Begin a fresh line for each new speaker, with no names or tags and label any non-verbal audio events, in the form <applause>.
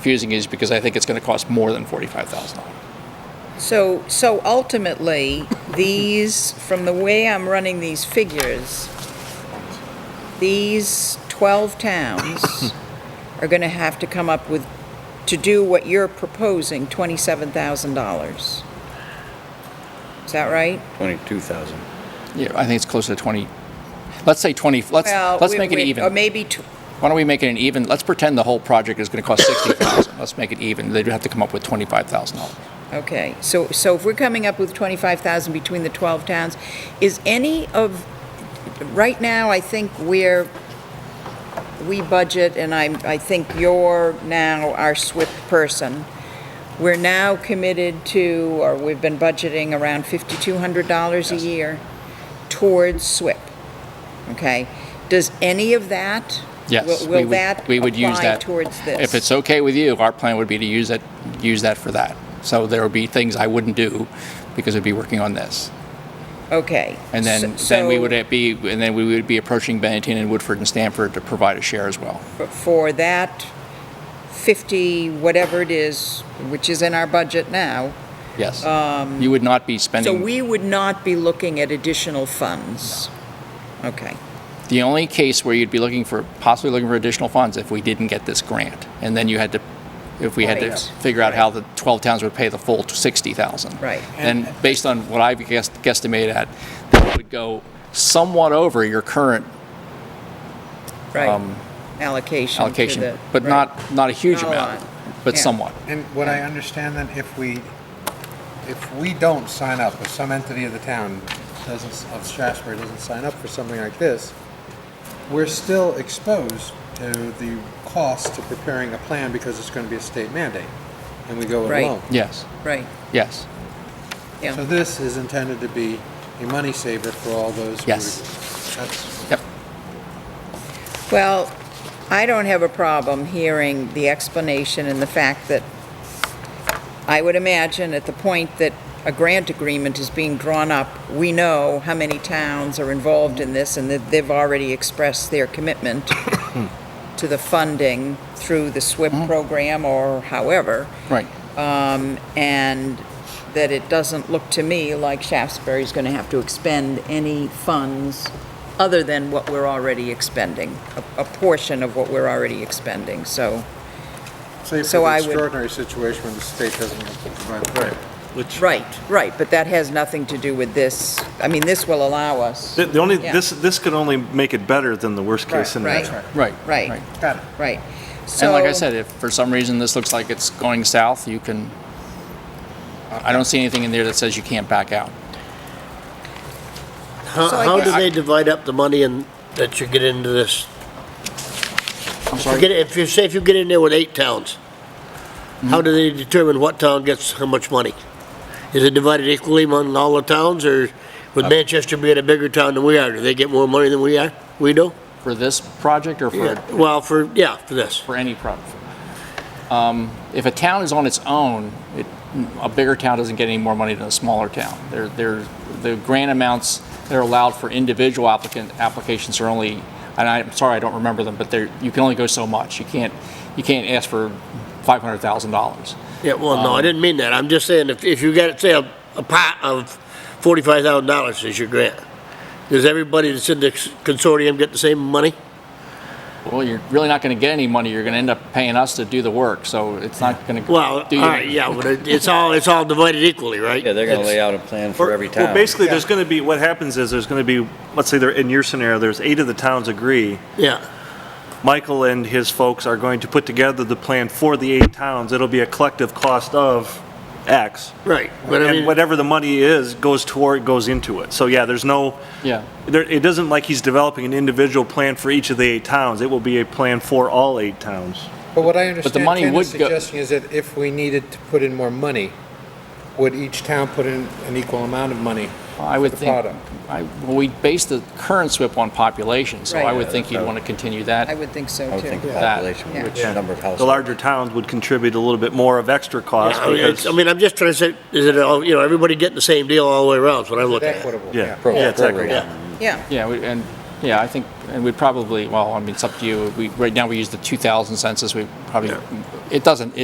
confusing is because I think it's going to cost more than forty-five thousand dollars.
So, so ultimately, these, from the way I'm running these figures, these
<laughs>
12 towns are going to have to come up with, to do what you're proposing, $27,000. Is that right?
Twenty-two thousand.
Yeah, I think it's closer to twenty. Let's say twenty. Let's
Well,
let's
we-
make it
we-
even.
Or maybe, tw-
Why don't we make it an even? Let's pretend the whole project is going to cost sixty thousand. let's make it even. They'd have to come up with twenty-five thousand dollars.
okay, so, so if we're coming up with 25,000 between the 12 towns, is any of, right now, I think we're, we budget, and I, I think you're now our SWIP person. We're now committed to, or we've been budgeting around $5,200 a year towards SWIP, okay? Does any of that?
Yes,
will-
we
Will
would-
that
we would use
apply
that.
towards this?
If it's okay with you, our plan would be to use that use that for that. So there would be things I wouldn't do because I'd be working on this.
Okay.
And then,
S-
then we
so-
would be, and then we would be approaching Bennington and Woodford and Stanford to provide a share as well.
for that 50, whatever it is, which is in our budget now,
Yes. You would not be
um, so
spending,
we would not be looking at additional funds? Okay,
the only case where you'd be looking for, possibly looking for additional funds if we didn't get this grant. And then you had to, if we had to
Right.
figure out how the 12 towns would pay the full 60,000.
Right.
And based on what I've guess- guesstimated at, that would go somewhat over your current
right. Allocation to
Um, allocation,
the-
but
right.
not, not a huge
Not a
amount,
lot.
but
Yeah.
somewhat.
And what I understand then, if we, if we don't sign up, if some entity of the town doesn't, of Strasburg doesn't sign up for something like this, we're still exposed to the cost of preparing a plan because it's going to be a state mandate, and we go it
Right.
alone.
Yes,
Right,
yes,
So
yeah,
this is intended to be a money saver for all those. who-
Yes.
That's,
yep.
well, I don't have a problem hearing the explanation and the fact that I would imagine at the point that a grant agreement is being drawn up, we know how many towns are involved in this and that they've already expressed their commitment to the funding through the SWIP program or however,
Right.
and that it doesn't look to me like Shaftesbury's going to have to expend any funds other than what we're already expending, a a portion of what we're already expending, so,
say for
So
the
I would-
extraordinary situation when the state doesn't provide. the plan.
right, right, but that has nothing to do with this, I mean, this will allow us.
The the only,
Yeah.
this, this could only make it better than the
Right,
worst-case
Right,
scenario.
Right.
Right.
Got it.
right.
And like I
So-
said, if for some reason this looks like it's going south, you can, I don't see anything in there that says you can't back out.
How,
So I
how do
guess-
they divide up the money and, that you get into this?
I'm
You
sorry?
get- If you, say if you get in there with eight towns,
Hmm.
how do they determine what town gets how much money? Is it divided equally among all the towns, or
Uh,
with Manchester being a bigger town than we are, do they get more money than we are, we do?
For this project or for,
Well, for, yeah, for this.
for any project? Um, If a town is on its own, it, a bigger town doesn't get any more money than a smaller town. They're, they're, the grant amounts that are allowed for individual applicant, applications are only, and I'm sorry, I don't remember them, but they're, you can only go so much. You can't, you can't ask for five hundred thousand dollars.
Yeah, well,
Um,
no, I didn't mean that, I'm just saying, if, if you got, say, a, a pot of forty-five thousand dollars is your grant, does everybody that's in the consortium get the same money?
Well, you're really not going to get any money. You're going to end up paying us to do the work, so it's not going to.
Well, all right, yeah, but it- it's all, it's all divided equally, right?
Yeah, they're gonna
It's-
lay out a plan for every town.
Well, basically, there's going to be, what happens is, there's going to be, let's say, there in your scenario, there's eight of the towns agree.
Yeah,
Michael and his folks are going to put together the plan for the eight towns. It'll be a collective cost of X.
right, but I
And
mean,
whatever the money is, goes toward, goes into it. So, yeah, there's no,
Yeah,
there, it doesn't like he's developing an individual plan for each of the eight towns. It will be a plan for all eight towns.
But what I understand
money
Ken is
would go-
suggesting is that if we needed to put in more money, would each town put in an equal amount of money?
I would
The
think,
product.
I, well, we base the current SWIP on population, so I
Right.
would think you'd want to continue that.
I would think so, too.
I would think
Yeah.
population,
Yeah.
which number of households.
The larger towns would contribute a little bit more of extra cost
I mean,
because.
it's- I mean, I'm just trying to say, is it all, you know, everybody getting the same deal all the way around, is what I'm looking at.
Equitable, yeah.
Yeah, yeah, it's
Program.
equitable.
Yeah,
Yeah,
Yeah, we- and Yeah, I think, and we probably, well, I mean, it's up to you. We, right now, we use the 2000 census. We probably, it doesn't,